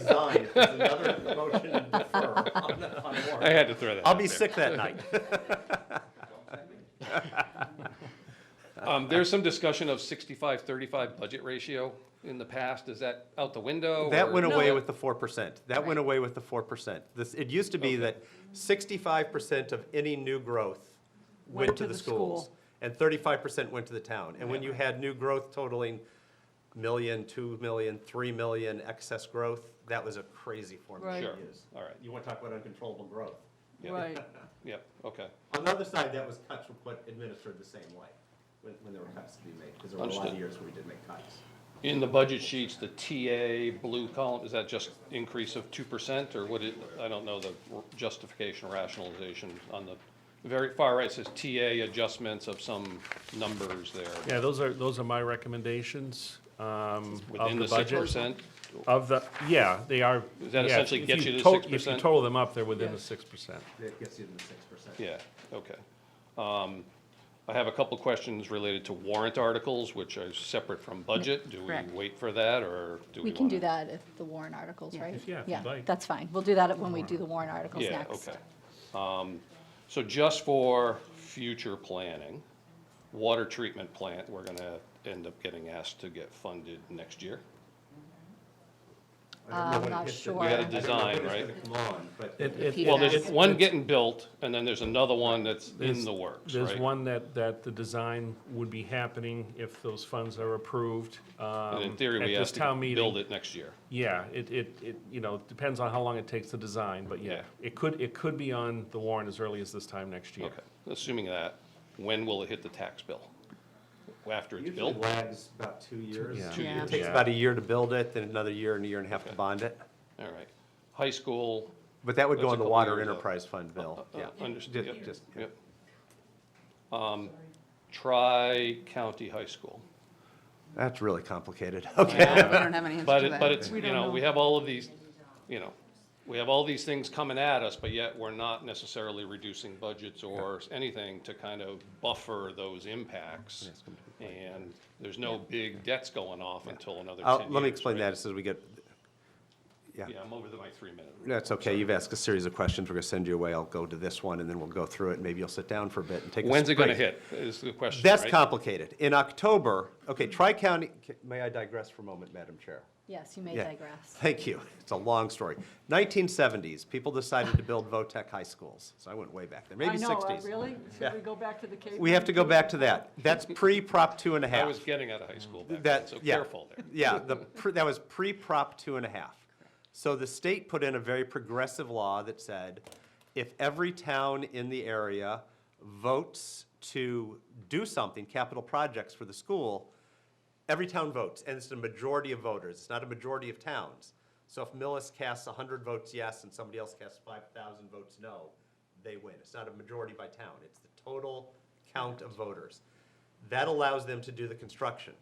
resign. It's another motion to defer on the- on the I warrant. had to throw that. I'll out be there. sick that night. Um, there's some discussion of 65-35 budget ratio in the past. Is that out the window? That or- went No, away it- with the four percent. That went away with the four percent. This, it used to be that sixty-five percent of any new growth went to the schools. And thirty-five percent went to the town. And when you had new growth totaling million, two million, three million excess growth, that was a crazy formula Sure, to use. all right, You want to talk about uncontrollable growth. Yeah. Right, yep, okay. On the other side, that was cuts were put administered the same way, when, when there were cuts to be made, because there were a lot of Understood. years where we did make cuts. In the budget sheets, the TA blue column, is that just increase of two percent or what it, I don't know the justification or rationalization on the very far right says TA adjustments of some numbers there. Yeah, those are, those are my recommendations um, of Within the the six budget. percent, Of the, yeah, they are. Does that yeah, essentially if get you to tot- If you 6%? total them up, they're within the Yes. six percent. That gets you to the six percent. yeah, okay. Um, I have a couple questions related to warrant articles, which are separate from budget. Do we Correct. wait for that or do we We wanna? can do that if the warrant articles, right? Yeah, if you'd like. that's fine. We'll do that when we do the warrant articles Yeah, next. okay. Um, So just for future planning, water treatment plant, we're gonna end up getting asked to get funded next year. Uh, I'm not sure. We had a design, right? Come on, but It- it- Peter Well, Yeah. there's one getting built, and then there's another one that's in There's- the works, There's right? one that, that the design would be happening if those funds are approved. And in um, theory, at we this have town to meeting. build it next year. Yeah, it, it, it, you know, depends on how long it takes to design, but yeah, Yeah. it could, it could be on the warrant as early as this time next year. Okay, assuming that, when will it hit the tax bill? After it's usually built? lags about two years. yeah. Two Yeah. years, It takes Yeah. about a year to build it, then another year and a year and a half to Okay. bond it. all right. High school, But that would That's go a in the couple water years out. enterprise fund bill, Oh, uh, yeah. understood, Ju- yep, just- yep. Um, Tri-county high school. That's really complicated, okay. we don't have any answer But to it, but that. it's, you know, we have all of these, you know, we have all these things coming at us, but yet we're not necessarily reducing budgets or anything to kind of buffer those impacts. And there's no big debts going off until another ten I'll- years. Let me explain right? that as we get, yeah. Yeah, I'm over the- my three minute. That's okay, you've asked a series of questions, we're gonna send you away, I'll go to this one, and then we'll go through it, maybe you'll sit down for a bit and take a When's it gonna break. hit, is the question, That's right? complicated. In October, okay, Tri-County, may I digress for a moment, Madam Chair? Yes, you may Yeah. digress. Thank you. It's a long story. 1970s, people decided to build VOTEC high schools. So I went way back there, maybe 60s. uh, Should we go back to the Cape? We have to go back to that. That's pre-Prop two and a I half. was getting out of high school back then, That, so yeah. careful there. Yeah, the, pre- that was pre-prop two and a half. So the state put in a very progressive law that said, if every town in the area votes to do something, capital projects for the school, every town votes, and it's a majority of voters, it's not a majority of towns. So if Millis casts hundred votes yes and somebody else casts five thousand votes no, they win. It's not a majority by town, it's the total count of voters. That allows them to do the construction.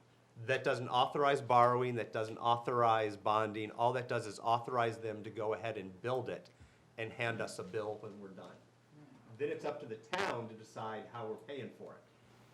That doesn't authorize borrowing, that doesn't authorize bonding, all that does is authorize them to go ahead and build it and hand us a bill when we're done. Then it's up to the town to decide how we're paying for it.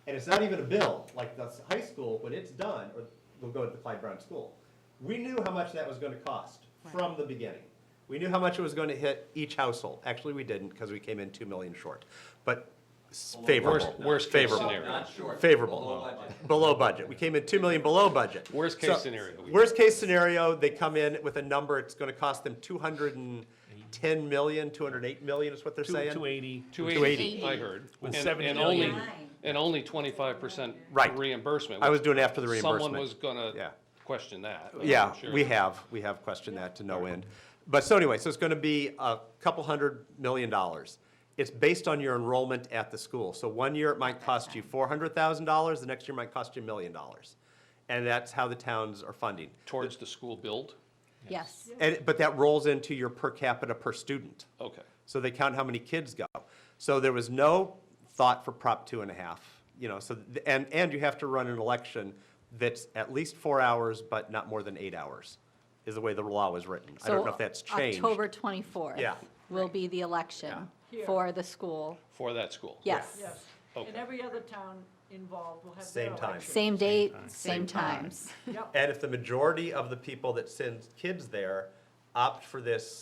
And it's not even a bill, like the s- high school, when it's done, or we'll go to the Clyde Brown School. We knew how much that was gonna cost from the beginning. We knew how much it was gonna hit each household. Actually, we didn't, because we came in two million short, but s- favorable. Worst, worst case favorable scenario. favorable. Below budget. We came in two million below budget. Worst case So, scenario, we- Worst case scenario, they come in with a number, it's gonna cost them two hundred and ten million, two hundred and eight million is what they're Two- saying. 280. Two 280. eighty, I heard. With And- 70 and only- million. And only twenty-five percent Right. reimbursement. I which was doing after the reimbursement. Someone was gonna Yeah. question that. but I'm Yeah, sure- we have, we have questioned that to no end. But so anyway, so it's gonna be a couple hundred million dollars. It's based on your enrollment at the school. So one year it might cost you four hundred thousand dollars, the next year might cost you a million dollars. And that's how the towns are funding. Towards the school build? Yes, And, but that rolls into your per capita per student. Okay. So they count how many kids go. So there was no thought for Prop two and a half, you know, so, th- and, and you have to run an election that's at least four hours, but not more than eight hours, is the way the law was written. I don't know So if that's changed. October 24th. Yeah. Will be the election Here. for the school. For that school? Yes. Yes, Okay. and every other town involved will have their Same time. election. Same date, same Same time. times. Yep, And if the majority of the people that send kids there opt for this